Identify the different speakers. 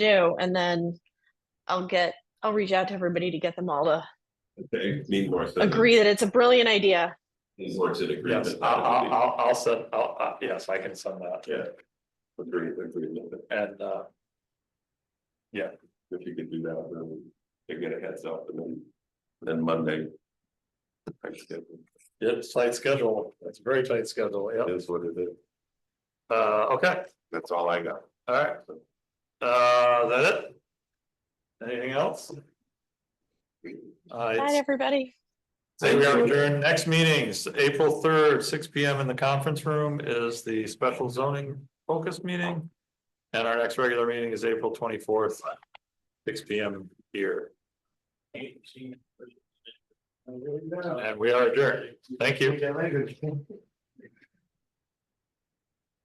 Speaker 1: do, and then I'll get, I'll reach out to everybody to get them all to
Speaker 2: Okay, need more.
Speaker 1: agree that it's a brilliant idea.
Speaker 2: Need more to agree.
Speaker 3: Yes, I'll, I'll,
Speaker 2: uh.
Speaker 3: I'll, I'll send, I'll, uh, yes, I can send that
Speaker 2: Yeah. Agree, agree with it.
Speaker 3: and, uh,
Speaker 2: If you could do that, then they get a heads up and then, then Monday. I should get-
Speaker 3: it's tight schedule. It's a very tight schedule. Yeah.
Speaker 2: Is what it is.
Speaker 3: Uh, okay,
Speaker 2: That's all I got.
Speaker 3: all right. Uh, is that it? Anything else? Uh,
Speaker 1: Bye,
Speaker 3: it's-
Speaker 1: everybody.
Speaker 3: say we are adjourned. Next meetings, April third, six P M in the conference room is the special zoning focus meeting. And our next regular meeting is April twenty-fourth, six P M here. And we are adjourned. Thank you.